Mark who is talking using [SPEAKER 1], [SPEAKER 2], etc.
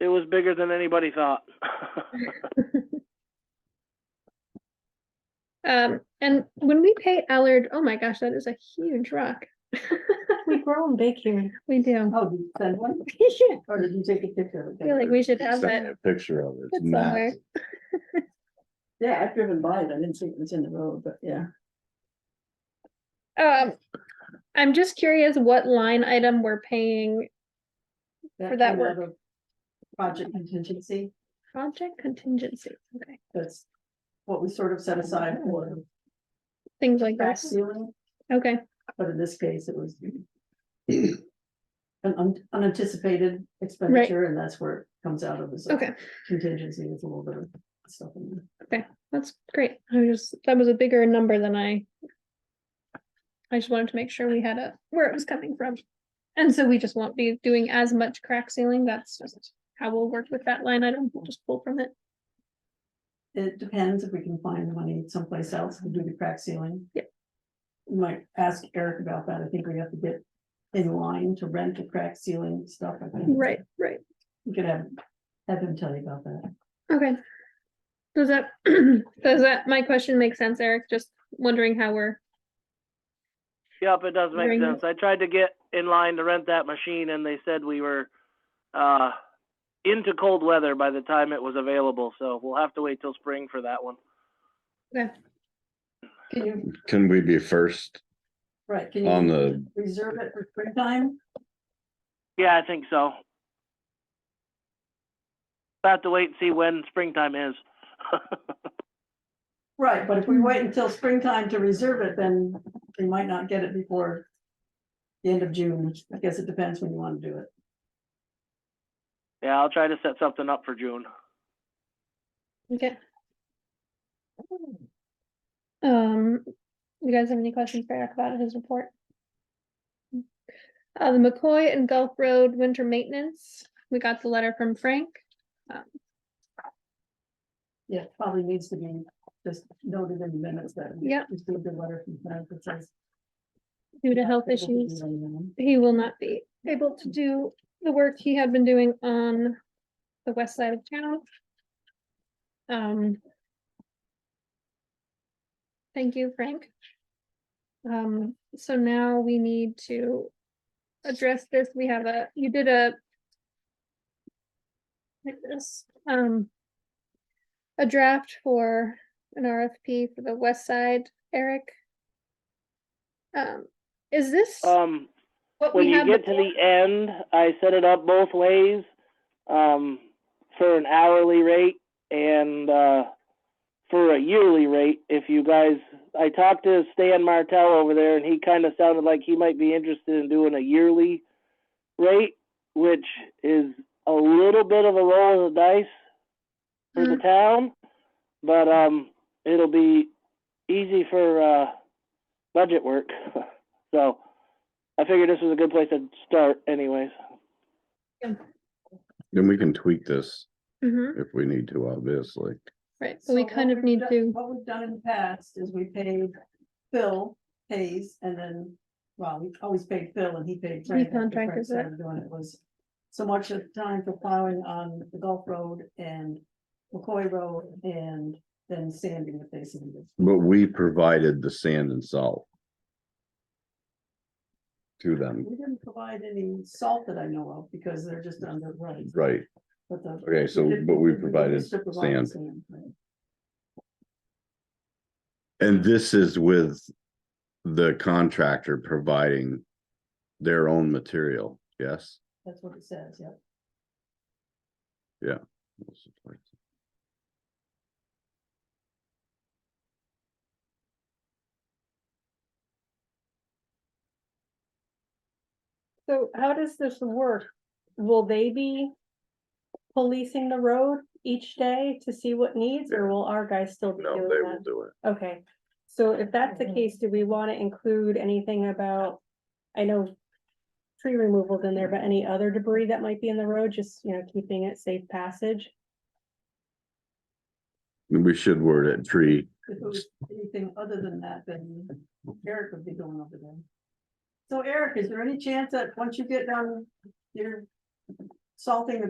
[SPEAKER 1] It was bigger than anybody thought.
[SPEAKER 2] Um, and when we pay Allard, oh my gosh, that is a huge rock.
[SPEAKER 3] We grow them big here.
[SPEAKER 2] We do.
[SPEAKER 3] Oh, did you send one?
[SPEAKER 2] Yeah,
[SPEAKER 3] Or did you take a picture of
[SPEAKER 2] I feel like
[SPEAKER 3] it?
[SPEAKER 2] we should have
[SPEAKER 4] Send me
[SPEAKER 2] that.
[SPEAKER 4] a picture of it. It's
[SPEAKER 2] It's somewhere.
[SPEAKER 4] massive.
[SPEAKER 3] Yeah, I've driven by it. I didn't see it was in the road, but yeah.
[SPEAKER 2] Um, I'm just curious what line item we're paying For that
[SPEAKER 3] came
[SPEAKER 2] work.
[SPEAKER 3] out of Project contingency,
[SPEAKER 2] project contingency, okay,
[SPEAKER 3] that's what we sort of set aside for
[SPEAKER 2] things like
[SPEAKER 3] crack
[SPEAKER 2] that.
[SPEAKER 3] ceiling,
[SPEAKER 2] Okay,
[SPEAKER 3] but in this case, it was an un- unanticipated expenditure, and that's where it comes out of, is a
[SPEAKER 2] okay,
[SPEAKER 3] contingency with a little bit of stuff in there.
[SPEAKER 2] that's great. I was just, that was a bigger number than I. I just wanted to make sure we had a, where it was coming from. And so we just won't be doing as much crack sealing. That's just how we'll work with that line item. We'll just pull from it.
[SPEAKER 3] It depends if we can find money someplace else to do the crack ceiling.
[SPEAKER 2] Yep.
[SPEAKER 3] We Might ask Eric about that. I think we have to get in line to rent the crack ceiling stuff. I think.
[SPEAKER 2] Right, right.
[SPEAKER 3] We could have, have him tell you about that.
[SPEAKER 2] Okay. Does that, does that, my question make sense, Eric? Just wondering how we're,
[SPEAKER 1] Yep, it does make
[SPEAKER 2] Bring it.
[SPEAKER 1] sense. I tried to get in line to rent that machine and they said we were, uh, into cold weather by the time it was available, so we'll have to wait till spring for that one.
[SPEAKER 2] okay,
[SPEAKER 3] Can you,
[SPEAKER 4] Can we be first
[SPEAKER 3] right, can
[SPEAKER 4] on
[SPEAKER 3] you
[SPEAKER 4] the,
[SPEAKER 3] reserve it for springtime?
[SPEAKER 1] Yeah, I think so. Have to wait and see when springtime is.
[SPEAKER 3] Right, but if we wait until springtime to reserve it, then we might not get it before the end of June. I guess it depends when you want to do it.
[SPEAKER 1] Yeah, I'll try to set something up for June.
[SPEAKER 2] okay. Um, you guys have any questions for Eric about his report? Uh, the McCoy and Gulf Road winter maintenance, we got the letter from Frank.
[SPEAKER 3] Yeah, probably needs to be just noted in the minutes that. we
[SPEAKER 2] Yep.
[SPEAKER 3] Received a letter from Frank that says.
[SPEAKER 2] Due to health issues, he will not be able to do the work he had been doing on the west side of town. Um. Thank you, Frank. Um, so now we need to address this. We have a, you did a like this, um, a draft for an RFP for the west side, Eric. Um, is this
[SPEAKER 1] Um,
[SPEAKER 2] what
[SPEAKER 1] when
[SPEAKER 2] we
[SPEAKER 1] you
[SPEAKER 2] have?
[SPEAKER 1] get to
[SPEAKER 2] before?
[SPEAKER 1] the end, I set it up both ways, um, for an hourly rate and, uh, for a yearly rate, if you guys, I talked to Stan Martell over there and he kind of sounded like he might be interested in doing a yearly rate, which is a little bit of a roll of the dice for
[SPEAKER 2] Mm-hmm.
[SPEAKER 1] the town, but, um, it'll be easy for, uh, budget work. So, I figured this was a good place to start anyways.
[SPEAKER 4] then we can tweak this
[SPEAKER 2] Mhm,
[SPEAKER 4] if we need to, obviously.
[SPEAKER 2] right, so we kind of need to,
[SPEAKER 3] What we've done in the past is we paid Phil pays and then, well, we always paid Phil and he paid. Frank after
[SPEAKER 2] contracted
[SPEAKER 3] Frank
[SPEAKER 2] it.
[SPEAKER 3] started Doing it was so much of the time for plowing on the Gulf Road and McCoy Road and then sanding the face of it.
[SPEAKER 4] But we provided the sand and salt to them,
[SPEAKER 3] We didn't provide any salt that I know of because they're just under, right.
[SPEAKER 4] right?
[SPEAKER 3] But the.
[SPEAKER 4] Okay, so,
[SPEAKER 3] did-
[SPEAKER 4] but we
[SPEAKER 3] did
[SPEAKER 4] provided
[SPEAKER 3] strip of all the
[SPEAKER 4] sand.
[SPEAKER 3] sand, right.
[SPEAKER 4] And this is with the contractor providing their own material, yes?
[SPEAKER 3] That's what it says, yeah.
[SPEAKER 5] So how does this work? Will they be policing the road each day to see what needs, or will our guys still be
[SPEAKER 4] No,
[SPEAKER 5] doing
[SPEAKER 4] they will
[SPEAKER 5] that?
[SPEAKER 4] do it.
[SPEAKER 5] Okay, so if that's the case, do we want to include anything about, I know tree removals in there, but any other debris that might be in the road, just, you know, keeping it safe passage?
[SPEAKER 4] We should word it tree
[SPEAKER 3] If it was anything other than that, then Eric would be going over there. So Eric, is there any chance that once you get done, you're salting the